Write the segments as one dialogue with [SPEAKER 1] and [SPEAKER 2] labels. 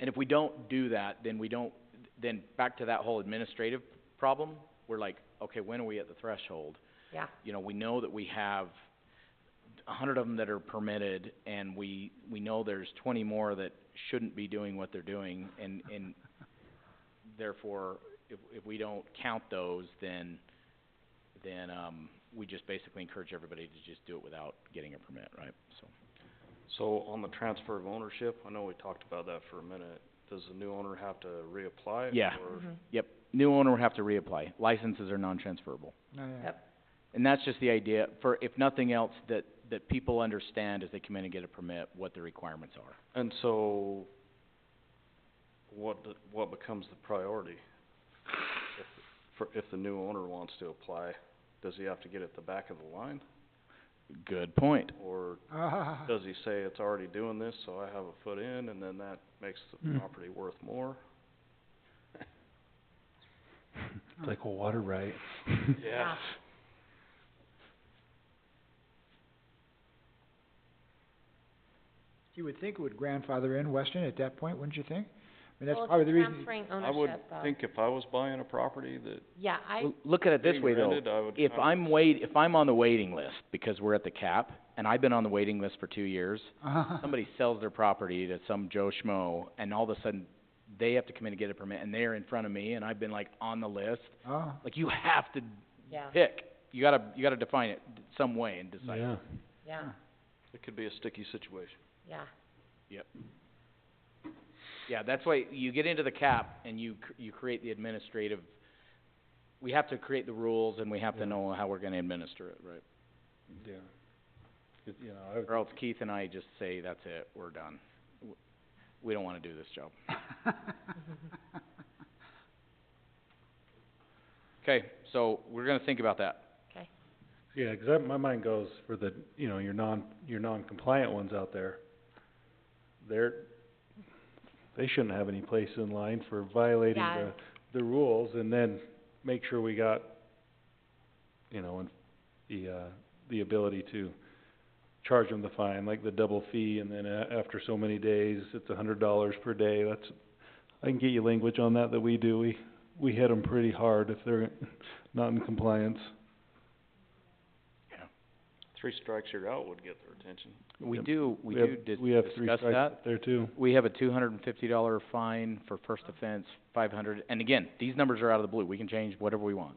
[SPEAKER 1] And if we don't do that, then we don't, then back to that whole administrative problem, we're like, okay, when are we at the threshold?
[SPEAKER 2] Yeah.
[SPEAKER 1] You know, we know that we have a hundred of them that are permitted, and we, we know there's twenty more that shouldn't be doing what they're doing, and, and therefore, if, if we don't count those, then, then, um, we just basically encourage everybody to just do it without getting a permit, right? So,
[SPEAKER 3] So on the transfer of ownership, I know we talked about that for a minute, does the new owner have to reapply?
[SPEAKER 1] Yeah.
[SPEAKER 4] Mm-hmm.
[SPEAKER 3] Or,
[SPEAKER 2] Mhm.
[SPEAKER 1] new owner would have to reapply, licenses are non-transferable.
[SPEAKER 4] Oh, yeah.
[SPEAKER 2] Yep.
[SPEAKER 1] And that's just the idea, for, if nothing else, that, that people understand as they come in and get a permit, what the requirements are.
[SPEAKER 3] and so, what, d- what becomes the priority? If, for, if the new owner wants to apply, does he have to get at the back of the line?
[SPEAKER 1] Good point.
[SPEAKER 3] Or
[SPEAKER 4] Ah,
[SPEAKER 3] does he say it's already doing this, so I have a foot in, and then that makes the
[SPEAKER 4] Hmm.
[SPEAKER 3] property worth more?
[SPEAKER 5] It's like a water right.
[SPEAKER 2] Yeah.
[SPEAKER 4] you would think it would grandfather in Weston at that point, wouldn't you think? I mean, that's
[SPEAKER 2] Well,
[SPEAKER 4] probably the
[SPEAKER 2] it's
[SPEAKER 4] reason,
[SPEAKER 2] transferring
[SPEAKER 3] I would
[SPEAKER 2] ownership of,
[SPEAKER 3] think if I was buying a property that
[SPEAKER 2] yeah, I,
[SPEAKER 1] L- Look at it this
[SPEAKER 3] being
[SPEAKER 1] way, though.
[SPEAKER 3] rented, I would,
[SPEAKER 1] If
[SPEAKER 3] I would-
[SPEAKER 1] I'm wait, if I'm on the waiting list, because we're at the cap, and I've been on the waiting list for two years,
[SPEAKER 4] Uh-huh.
[SPEAKER 1] somebody sells their property to some Joe Schmo, and all of a sudden, they have to come in and get a permit, and they're in front of me, and I've been like on the list,
[SPEAKER 4] oh,
[SPEAKER 1] like you have to
[SPEAKER 2] yeah,
[SPEAKER 1] pick. You gotta, you gotta define it d- some way and decide.
[SPEAKER 4] Oh.
[SPEAKER 5] Yeah.
[SPEAKER 2] yeah,
[SPEAKER 3] it could be a sticky situation.
[SPEAKER 2] yeah,
[SPEAKER 1] Yeah, that's why you get into the cap and you cr- you create the administrative, we have to create the rules and we have to
[SPEAKER 5] Yeah.
[SPEAKER 1] know how we're gonna administer it, right?
[SPEAKER 5] Yeah. It, you know, I would-
[SPEAKER 1] Or else Keith and I just say, that's it, we're done. W- We don't wanna do this job. Okay, so we're gonna think about that.
[SPEAKER 2] okay,
[SPEAKER 5] yeah, 'cause that, my mind goes for the, you know, your non, your non-compliant ones out there. They're, they shouldn't have any place in line for violating
[SPEAKER 2] Yeah.
[SPEAKER 5] the, the rules and then make sure we got, you know, and the, uh, the ability to charge them the fine, like the double fee and then a- after so many days, it's a hundred dollars per day, that's, I can get you language on that that we do, we, we hit them pretty hard if they're not in compliance.
[SPEAKER 3] Three strikes, you're out would get their attention.
[SPEAKER 1] We
[SPEAKER 5] Yep.
[SPEAKER 1] do, we
[SPEAKER 5] have-
[SPEAKER 1] do dis-
[SPEAKER 5] we have three
[SPEAKER 1] discuss
[SPEAKER 5] strikes
[SPEAKER 1] that.
[SPEAKER 5] there too.
[SPEAKER 1] We have a two hundred and fifty dollar fine for first offense, five hundred, and again, these numbers are out of the blue, we can change whatever we want.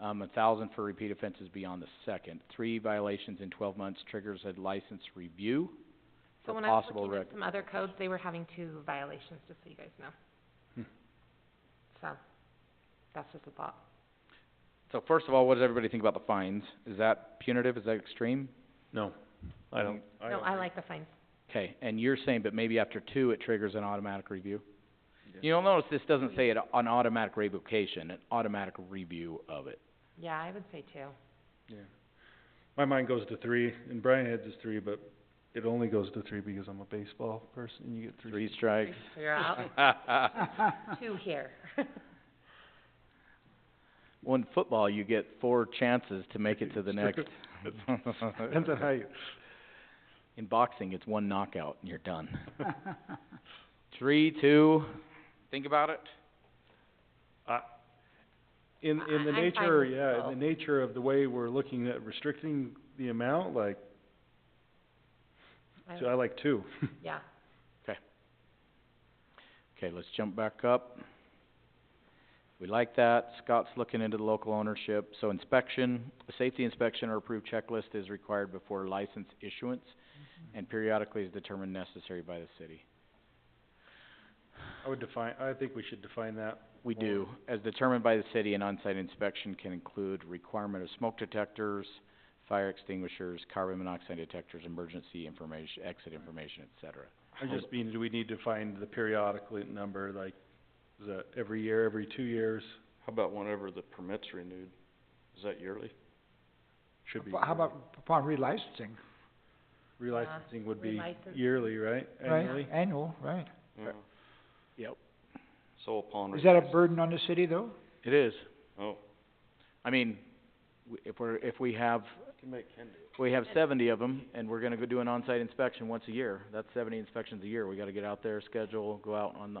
[SPEAKER 1] Um, a thousand for repeat offenses beyond the second, three violations in twelve months triggers a license review
[SPEAKER 2] so
[SPEAKER 1] for
[SPEAKER 2] when I was
[SPEAKER 1] possible
[SPEAKER 2] looking
[SPEAKER 1] rec-
[SPEAKER 2] at some other codes, they were having two violations, just so you guys know.
[SPEAKER 5] Hmm.
[SPEAKER 2] So, that's just a thought,
[SPEAKER 1] So first of all, what does everybody think about the fines? Is that punitive, is that extreme?
[SPEAKER 5] No, I don't, I
[SPEAKER 2] no,
[SPEAKER 5] don't
[SPEAKER 2] I
[SPEAKER 5] think-
[SPEAKER 2] like the fines,
[SPEAKER 1] Okay, and you're saying, but maybe after two, it triggers an automatic review? You'll notice this doesn't say it, an automatic revocation, an automatic review of it.
[SPEAKER 2] yeah, I would say two,
[SPEAKER 5] Yeah. My mind goes to three, and Brian heads is three, but it only goes to three because I'm a baseball person, and you get three.
[SPEAKER 1] Three strikes.
[SPEAKER 2] so you're out, two here.
[SPEAKER 1] Well, in football, you get four chances to make it to the next.
[SPEAKER 5] Depends on how you,
[SPEAKER 1] In boxing, it's one knockout and you're done. Three, two, think about it.
[SPEAKER 5] in,
[SPEAKER 2] I-
[SPEAKER 5] in the
[SPEAKER 2] I'm fine
[SPEAKER 5] nature,
[SPEAKER 2] with
[SPEAKER 5] yeah,
[SPEAKER 2] both.
[SPEAKER 5] in the nature of the way we're looking at restricting the amount, like,
[SPEAKER 2] I
[SPEAKER 5] so I like two.
[SPEAKER 2] would- Yeah,
[SPEAKER 1] Okay, let's jump back up. We like that. Scott's looking into the local ownership. So inspection, a safety inspection or approved checklist is required before license issuance and periodically is determined necessary by the city.
[SPEAKER 5] I would define, I think we should define that.
[SPEAKER 1] We
[SPEAKER 5] more.
[SPEAKER 1] do, as determined by the city, an on-site inspection can include requirement of smoke detectors, fire extinguishers, carbon monoxide detectors, emergency information, exit information, et cetera.
[SPEAKER 5] I
[SPEAKER 2] Oh.
[SPEAKER 5] just mean, do we need to find the periodically number, like, is that every year, every two years,
[SPEAKER 3] How about whenever the permit's renewed? Is that yearly?
[SPEAKER 5] should be
[SPEAKER 4] Well, how
[SPEAKER 5] yearly.
[SPEAKER 4] about upon relicensing,
[SPEAKER 5] Relicensing would be
[SPEAKER 2] relicense.
[SPEAKER 5] yearly, right?
[SPEAKER 4] right,
[SPEAKER 5] Annually?
[SPEAKER 4] annual, right?
[SPEAKER 3] Yeah.
[SPEAKER 1] Yep.
[SPEAKER 3] So upon
[SPEAKER 4] Is that a
[SPEAKER 3] request-
[SPEAKER 4] burden on the city though?
[SPEAKER 1] It is.
[SPEAKER 3] Oh.
[SPEAKER 1] I mean, w- if we're, if we have,
[SPEAKER 3] Can make Ken do it.
[SPEAKER 1] We have seventy of them, and we're gonna go do an on-site inspection once a year. That's seventy inspections a year. We gotta get out there, schedule, go out on the